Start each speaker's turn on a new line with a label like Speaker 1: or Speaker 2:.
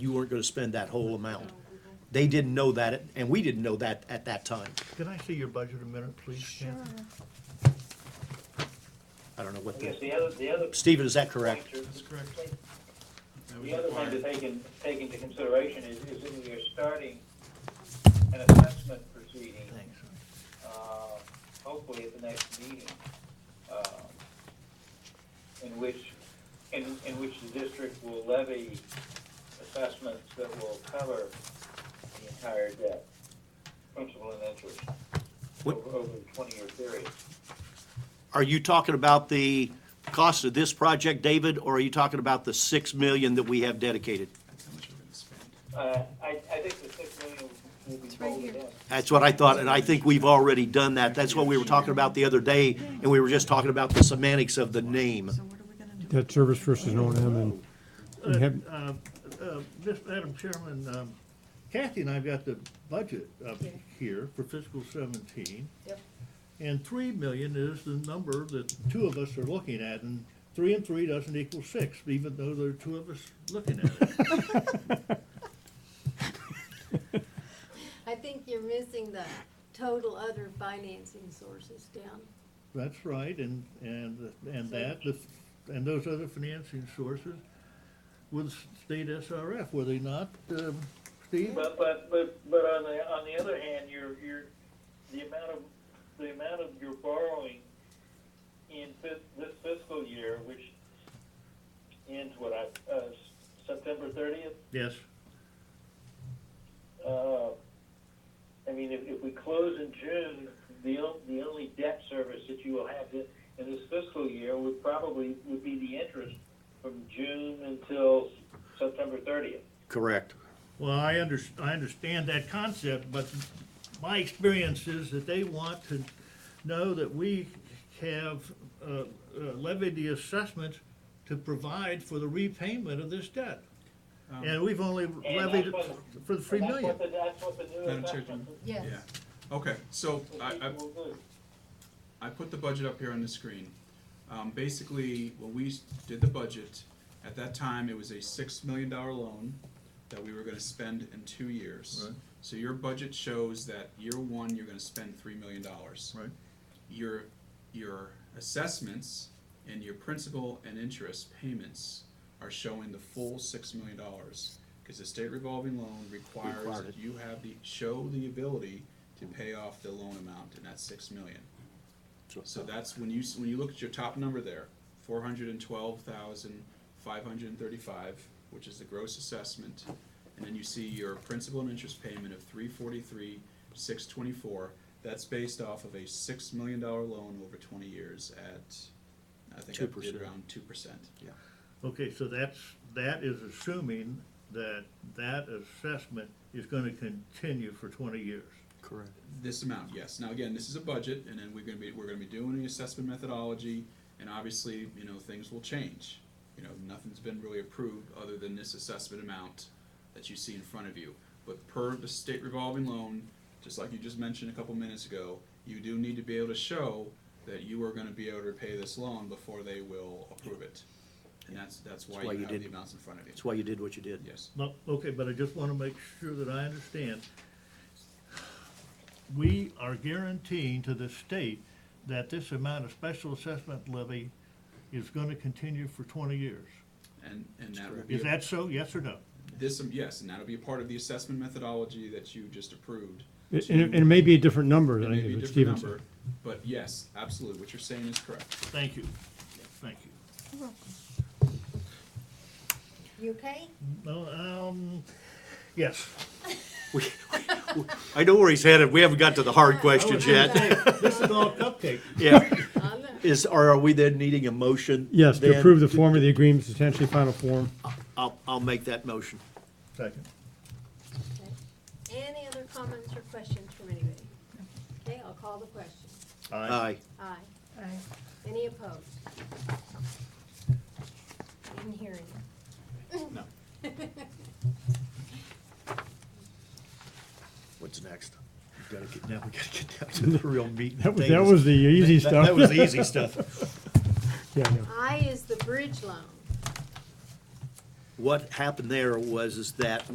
Speaker 1: you weren't gonna spend that whole amount. They didn't know that, and we didn't know that at that time.
Speaker 2: Can I see your budget a minute, please, Kathy?
Speaker 1: I don't know what
Speaker 3: I guess
Speaker 1: the,
Speaker 3: the other, the other.
Speaker 1: Stephen, is that correct?
Speaker 3: That's correct.
Speaker 4: That was
Speaker 3: The other thing to
Speaker 4: required.
Speaker 3: take in, take into consideration is, is that we are starting an assessment proceeding,
Speaker 2: Thanks.
Speaker 3: uh, hopefully at the next meeting, uh, in which, in, in which the district will levy assessments that will cover the entire debt, principal and interest,
Speaker 1: What-
Speaker 3: over, over the twenty-year period.
Speaker 1: Are you talking about the cost of this project, David, or are you talking about the six million that we have dedicated?
Speaker 4: That's how much we're gonna spend.
Speaker 3: Uh, I, I think the six million will be
Speaker 5: It's right
Speaker 3: folded
Speaker 5: here.
Speaker 3: in.
Speaker 1: That's what I thought, and I think we've already done that. That's what we were talking about the other day, and we were just talking about the semantics of the name.
Speaker 5: So what are we gonna do?
Speaker 6: Debt service versus O and M and we have-
Speaker 2: Uh, uh, Miss, Madam Chairman, um, Kathy and I've got the budget up
Speaker 5: Yeah.
Speaker 2: here for fiscal seventeen.
Speaker 5: Yep.
Speaker 2: And three million is the number that the two of us are looking at, and three and three doesn't equal six, even though there are two of us looking at it.
Speaker 7: I think you're missing the total other financing sources down.
Speaker 2: That's right, and, and, and that, the- and those other financing sources with state SRF, were they not, um, Steve?
Speaker 3: But, but, but, but on the, on the other hand, your, your, the amount of, the amount of your borrowing in this, this fiscal year, which ends what, I, uh, September thirtieth?
Speaker 2: Yes,
Speaker 3: Uh, I mean, if, if we close in June, the, on- the only debt service that you will have in, in this fiscal year would probably, would be the interest from June until September thirtieth.
Speaker 1: Correct.
Speaker 2: well, I under, I understand that concept, but my experience is that they want to know that we have uh, uh, levied the assessment to provide for the repayment of this debt.
Speaker 4: Um,
Speaker 2: And we've only levied it for the three million.
Speaker 3: That's what the new
Speaker 4: Madam Chair,
Speaker 3: assessment
Speaker 4: Jim.
Speaker 5: Yes.
Speaker 4: Yeah, okay, so I,
Speaker 3: that
Speaker 4: I,
Speaker 3: people will do.
Speaker 4: I put the budget up here on the screen. Um, basically, when we s- did the budget, at that time, it was a six million dollar loan that we were gonna spend in two years.
Speaker 2: Right.
Speaker 4: So your budget shows that year one, you're gonna spend three million dollars.
Speaker 2: Right.
Speaker 4: Your, your assessments and your principal and interest payments are showing the full six million dollars. Cause the state revolving loan requires
Speaker 1: Required it.
Speaker 4: that you have the, show the ability to pay off the loan amount, and that's six million. So that's when you, s- when you look at your top number there, four hundred and twelve thousand, five hundred and thirty-five, which is the gross assessment. And then you see your principal and interest payment of three forty-three, six twenty-four. That's based off of a six million dollar loan over twenty years at, I think I did
Speaker 1: 2%.
Speaker 4: around two percent. Yeah.
Speaker 2: Okay, so that's, that is assuming that that assessment is gonna continue for twenty years.
Speaker 1: Correct.
Speaker 4: This amount, yes. Now, again, this is a budget, and then we're gonna be, we're gonna be doing the assessment methodology, and obviously, you know, things will change. You know, nothing's been really approved other than this assessment amount that you see in front of you. But per the state revolving loan, just like you just mentioned a couple minutes ago, you do need to be able to show that you are gonna be able to repay this loan before they will approve it. And that's, that's why
Speaker 1: That's why you
Speaker 4: you have the
Speaker 1: did-
Speaker 4: amounts in front of you.
Speaker 1: That's why you did what you did.
Speaker 4: Yes.
Speaker 2: No, okay, but I just wanna make sure that I understand. We are guaranteeing to the state that this amount of special assessment levy is gonna continue for twenty years.
Speaker 4: And, and that will be.
Speaker 2: Is
Speaker 4: a-
Speaker 2: that so, yes or no?
Speaker 4: This, um, yes, and that'll be a part of the assessment methodology that you just approved.
Speaker 6: and and it may be a different number
Speaker 4: It
Speaker 6: than I
Speaker 4: may be
Speaker 6: think
Speaker 4: a
Speaker 6: what Steven
Speaker 4: different
Speaker 6: said.
Speaker 4: number, but yes, absolutely, what you're saying is correct.
Speaker 2: Thank you, thank you.
Speaker 5: You okay?
Speaker 2: No, um, yes.
Speaker 1: I know where he's headed. We haven't got to the hard questions yet.
Speaker 2: This is all cupcake.
Speaker 1: Yeah.
Speaker 7: I know.
Speaker 1: Is, or are we then needing a motion?
Speaker 6: Yes, to
Speaker 1: then?
Speaker 6: approve the form of the agreement, substantially final form.
Speaker 1: I'll, I'll make that motion.
Speaker 2: Second.
Speaker 7: Any other comments or questions from anybody? Okay, I'll call the question.
Speaker 1: Aye.
Speaker 7: Aye.
Speaker 5: Aye.
Speaker 7: Any opposed? Didn't hear any.
Speaker 4: No.
Speaker 1: What's next? We gotta get, now we gotta get down to the real meat and
Speaker 6: That was, that
Speaker 1: potatoes.
Speaker 6: was the easy
Speaker 1: That-
Speaker 6: stuff.
Speaker 1: That was the easy stuff.
Speaker 6: Yeah, I know.
Speaker 7: I is the bridge loan.
Speaker 1: what happened there was is that